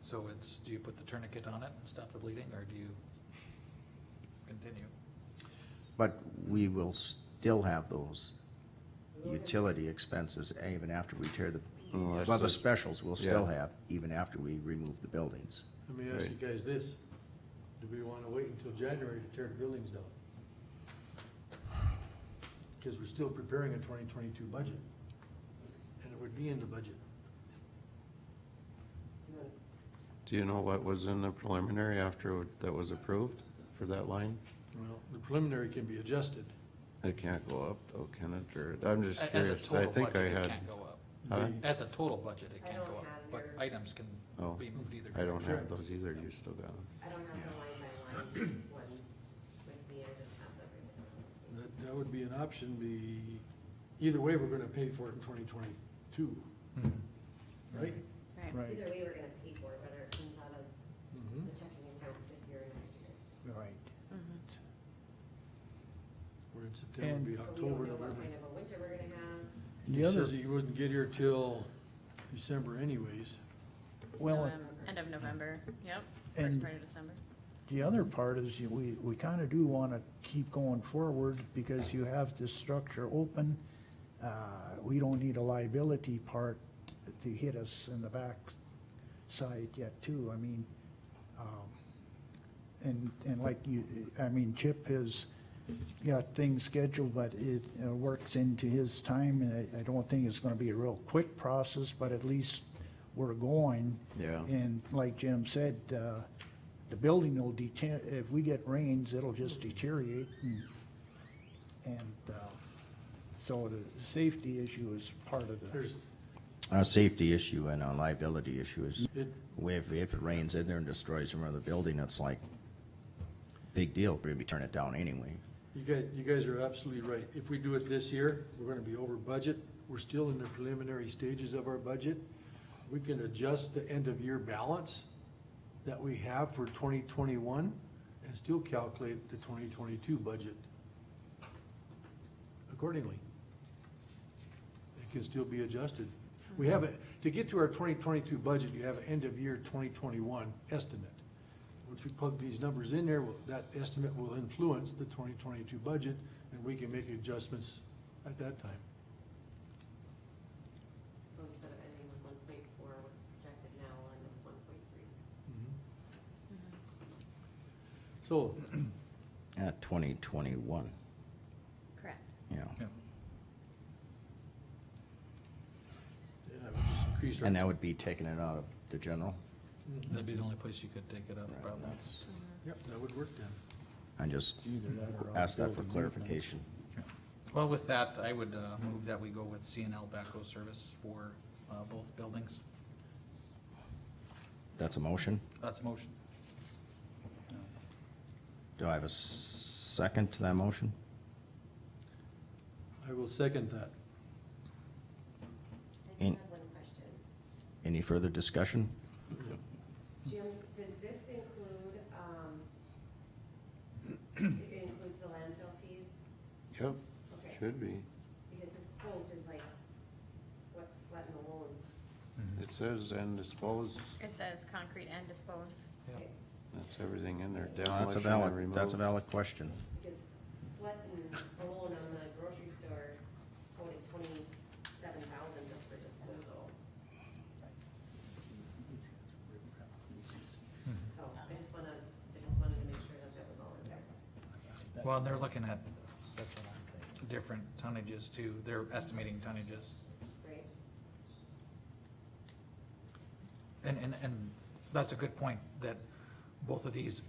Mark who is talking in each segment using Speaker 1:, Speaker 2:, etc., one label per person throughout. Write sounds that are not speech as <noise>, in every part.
Speaker 1: So it's, do you put the tourniquet on it and stop the bleeding, or do you continue?
Speaker 2: But we will still have those utility expenses even after we tear the,
Speaker 3: Oh, I
Speaker 2: well, the
Speaker 3: see.
Speaker 2: specials we'll still
Speaker 3: Yeah.
Speaker 2: have even after we remove the buildings.
Speaker 4: Let me ask you
Speaker 3: Right.
Speaker 4: guys this, do we wanna wait until January to tear the buildings down? Cause we're still preparing a twenty twenty-two budget, and it would be in the budget.
Speaker 3: Do you know what was in the preliminary after that was approved for that line?
Speaker 4: Well, the preliminary can be adjusted,
Speaker 3: It can't go up though, can it, or, I'm just
Speaker 1: A- As a
Speaker 3: curious, I
Speaker 1: total
Speaker 3: think I
Speaker 1: budget, it
Speaker 3: had,
Speaker 1: can't go up.
Speaker 3: huh?
Speaker 4: The-
Speaker 1: As a total budget, it
Speaker 5: I
Speaker 1: can't go
Speaker 5: don't
Speaker 1: up,
Speaker 5: have
Speaker 1: but
Speaker 5: your-
Speaker 1: items can
Speaker 3: Oh,
Speaker 1: be moved either.
Speaker 3: I don't
Speaker 1: direction.
Speaker 3: have those either, you still got them.
Speaker 5: I don't have the line by line
Speaker 4: <clears throat>
Speaker 5: ones with me, I just have the.
Speaker 4: that, that would be an option, be, either way, we're gonna pay for it in twenty twenty-two,
Speaker 1: Hmm.
Speaker 4: right?
Speaker 6: Right.
Speaker 5: Either way, we're gonna pay for it, whether it comes out of
Speaker 4: Mhm.
Speaker 5: the checking account this year or next year.
Speaker 6: Right.
Speaker 4: We're in September, it'd be
Speaker 5: So we
Speaker 4: October,
Speaker 5: don't know what
Speaker 4: November.
Speaker 5: kind of a winter we're gonna have.
Speaker 6: The
Speaker 4: He
Speaker 6: other,
Speaker 4: says he wouldn't get here till December anyways.
Speaker 5: um,
Speaker 6: well,
Speaker 7: Novem- End of November, yep,
Speaker 6: And-
Speaker 7: uh, first part of December.
Speaker 6: the other part is you- we, we kind of do want to keep going forward because you have this structure open. Uh, We don't need a liability part to hit us in the back side yet too. I mean, um, and, and like you, I mean, Chip has got things scheduled, but it uh, works into his time. And I, I don't think it's going to be a real quick process, but at least we're going.
Speaker 3: Yeah.
Speaker 6: And like Jim said, uh, the building will deter, if we get rains, it'll just deteriorate and, and, uh, so the safety issue is part of the,
Speaker 4: There's,
Speaker 2: A safety issue and a liability issue is,
Speaker 4: it,
Speaker 2: if, if it rains in there and destroys some other building, it's like, big deal, we're gonna turn it down anyway.
Speaker 4: You guys, you guys are absolutely right. If we do it this year, we're gonna be over budget. We're still in the preliminary stages of our budget. We can adjust the end of year balance that we have for twenty twenty-one and still calculate the twenty twenty-two budget accordingly. It can still be adjusted. We have, a- to get to our twenty twenty-two budget, you have an end of year twenty twenty-one estimate. Once we plug these numbers in there, well, that estimate will influence the twenty twenty-two budget, and we can make adjustments at that time.
Speaker 5: So instead of ending with one point four, what's projected now on one point three?
Speaker 4: Mm-hmm. So,
Speaker 2: At twenty twenty-one,
Speaker 7: Correct.
Speaker 2: you know.
Speaker 1: Yeah.
Speaker 4: yeah, we just increase our.
Speaker 2: And that would be taking it out of the general.
Speaker 4: Mhm.
Speaker 1: That'd be the only place you could take it up,
Speaker 2: Right,
Speaker 1: probably.
Speaker 2: that's-
Speaker 4: Yep, that would work then.
Speaker 2: I just
Speaker 6: either that or.
Speaker 2: asked that for
Speaker 6: outbuilding.
Speaker 2: clarification.
Speaker 1: Well, with that, I would uh, move that we go with CNL Backhoe Service for uh, both buildings.
Speaker 2: That's a motion?
Speaker 1: That's a motion.
Speaker 2: Do I have a s- second to that motion?
Speaker 4: I will second that.
Speaker 5: I do
Speaker 2: In-
Speaker 5: have one question.
Speaker 2: Any further discussion?
Speaker 5: Jim, does this include, um, it includes the landfill fees?
Speaker 3: Yep,
Speaker 5: Okay.
Speaker 3: should be.
Speaker 5: Because this quote is like, what's let alone?
Speaker 3: It says and dispose,
Speaker 7: It says concrete and dispose.
Speaker 1: Yeah.
Speaker 3: that's everything in there,
Speaker 2: That's a
Speaker 3: demolition and
Speaker 2: valid,
Speaker 3: remove.
Speaker 2: that's a valid question.
Speaker 5: Because Slut and Malone on the grocery store quoted twenty-seven thousand just for disposal.
Speaker 1: Hmm.
Speaker 5: So I just wanna, I just wanted to make sure that that was all in there.
Speaker 1: Well, and they're looking at different tonnages too. They're estimating tonnages.
Speaker 5: Right?
Speaker 1: And, and, and that's a good point, that both of these,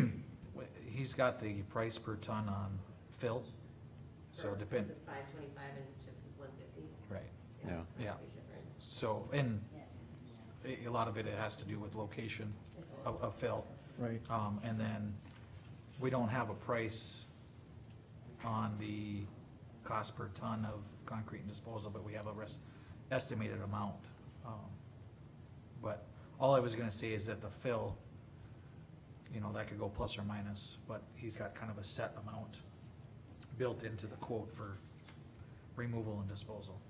Speaker 1: <clears throat> he's got the price per ton on fill, so
Speaker 5: For-
Speaker 1: depend,
Speaker 5: This is five twenty-five and Chips is one fifty.
Speaker 1: right.
Speaker 3: Yeah.
Speaker 1: Yeah.
Speaker 5: Big difference.
Speaker 1: So, and a- a lot of it has to do with location of, of fill.
Speaker 6: Right.
Speaker 1: Um, and then we don't have a price on the cost per ton of concrete and disposal, but we have a rest, estimated amount. Um, But all I was gonna say is that the fill, you know, that could go plus or minus, but he's got kind of a set amount built into the quote for removal and disposal.